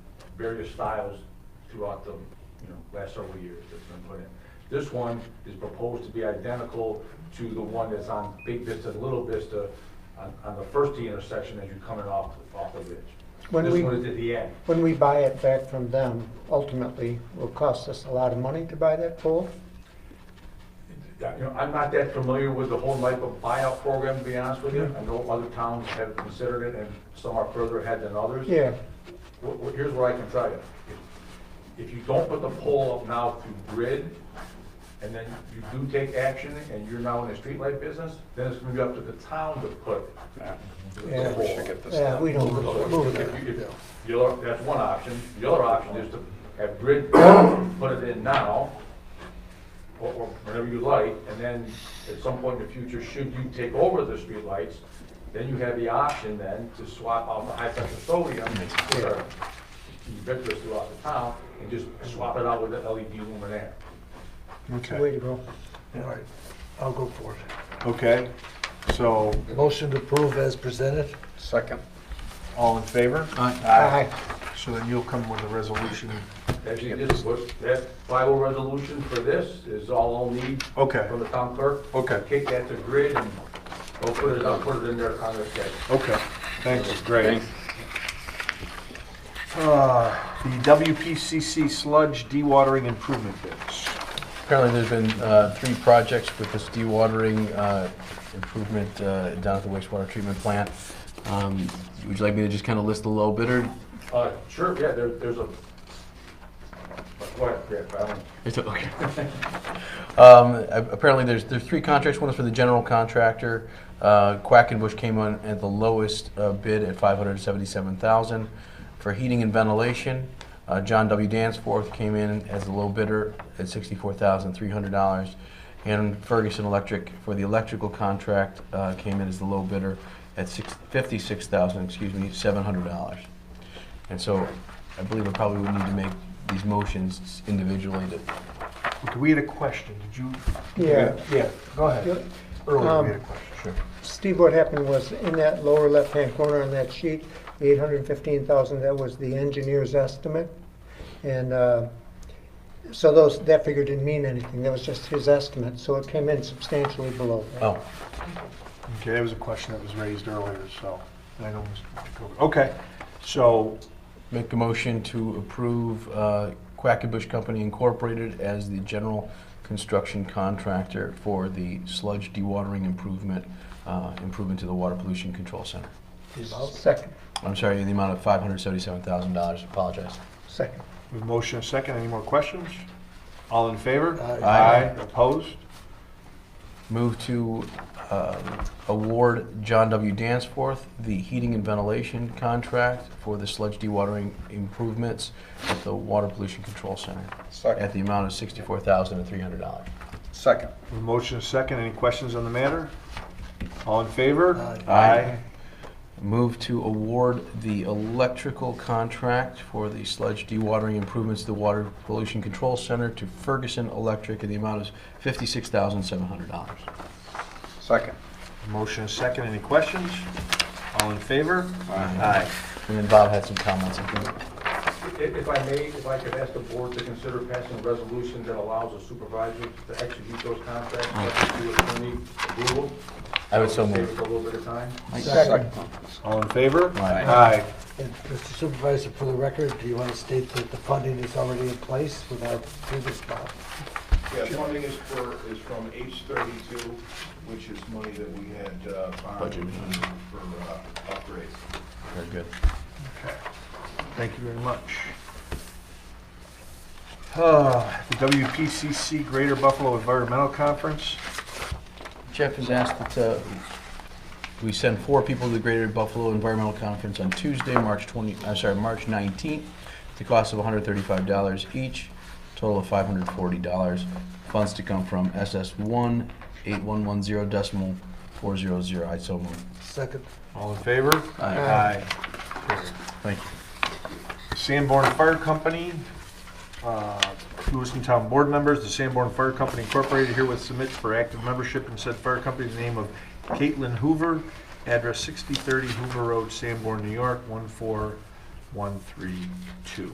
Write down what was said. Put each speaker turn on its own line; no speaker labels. various styles throughout the, you know, last several years that's been put in. This one is proposed to be identical to the one that's on Big Vista and Little Vista on, on the first T intersection as you're coming off, off the ridge.
When
This
we-
one is at the end.
When we buy it back from them, ultimately, will cost us a lot of money to buy that pole?
Yeah, you know, I'm not that familiar with the whole Michael buyout program, to be honest with you. I know other towns have considered it, and some are further ahead than others.
Yeah,
Well, well, here's what I can tell you. If- If you don't put the pole up now through grid, and then you do take action, and you're now in the streetlight business, then it's gonna be up to the town to put
Yeah,
the
we
pole.
should get this
yeah, we don't
So
move it.
if you- if- The other, that's one option. The other option is to have grid put it in now, or, or whenever you like, and then at some point in the future, should you take over the streetlights, then you have the option then to swap out the high pressure sodium, which are ubiquitous throughout the town, and just swap it out with the LED luminaire.
It's the way
Okay,
to go.
All right, I'll go for it.
okay, so,
Motion to approve as presented?
Second.
all in favor?
Aye.
So then you'll come with a resolution,
Actually, this, what, that final resolution for this is all I'll need
okay,
from the town clerk.
okay,
Kick that to grid and we'll put it, I'll put it in there on their schedule.
okay, thanks, great. Uh, The WPCC sludge dewatering improvement bids.
Apparently, there's been uh, three projects with this dewatering uh, improvement uh, down at the wastewater treatment plant. Um, Would you like me to just kind of list the low bidder?
Uh, sure, yeah, there, there's a, what, yeah, I don't,
It's o- okay. Um, a- Apparently, there's, there's three contracts. One is for the general contractor. Uh, Quack and Bush came on at the lowest uh, bid at 577000 For heating and ventilation, uh, John W. Danforth came in as the low bidder at $64,300. And Ferguson Electric for the electrical contract uh, came in as the low bidder at six- $56,000, excuse me, $700. And so I believe I probably would need to make these motions individually to
Okay, We had a question, did you?
Yeah.
Yeah, go ahead.
Yep.
Earlier,
Um,
we had a question. Sure.
Steve, what happened was in that lower left-hand corner on that sheet, the eight hundred and fifteen thousand, that was the engineer's estimate. And, uh, so those, that figure didn't mean anything, that was just his estimate, so it came in substantially below. that.
Oh,
Okay, that was a question that was raised earlier, so, I know, Mr. Jacoby. Okay, so,
make a motion to approve uh, Quackenbush Company Incorporated as the general construction contractor for the sludge dewatering improvement, uh, improvement to the Water Pollution Control Center.
Oh. Second,
I'm sorry, in the amount of $577,000, apologize.
second.
we have a motion and a second, any more questions? All in favor?
Aye.
Opposed?
Move to um, award John W. Danforth the heating and ventilation contract for the sludge dewatering improvements at the Water Pollution Control Center at
Second.
the amount of $64,300.
Second. We have a motion and a second, any questions on the matter? All in favor?
Aye.
Aye. Move to award the electrical contract for the sludge dewatering improvements to the Water Pollution Control Center to Ferguson Electric in the amount of $56,700.
Second. Motion and a second, any questions? All in favor?
Aye. And then Bob had some comments. I think.
if, if I may, if I could ask the board to consider passing a resolution that allows the supervisor to execute those contracts, subject to attorney approval.
I would so
Save
move.
us a little bit of time.
Second.
All in favor?
Aye.
And Mr. Supervisor, for the record, do you want to state that the funding is already in place with our previous bond?
Yeah, funding is for, is from H thirty-two, which is money that we had uh, borrowed
Budgeted.
for uh, upgrades.
Very good.
Thank you very much. Ah, The WPCC Greater Buffalo Environmental Conference.
Jeff has asked that uh, we send four people to the Greater Buffalo Environmental Conference on Tuesday, March 20, I'm sorry, March 19th, at the cost of $135 each, total of $540. Funds to come from SS1 8110 decimal 400. I so move.
Second,
All in favor?
Aye. Thank you.
Sanborn Fire Company, uh, Lewiston Town Board members, the Sanborn Fire Company Incorporated herewith submits for active membership in said fire company the name of Caitlin Hoover, address 6030 Hoover Road, Sanborn, New York, 14132.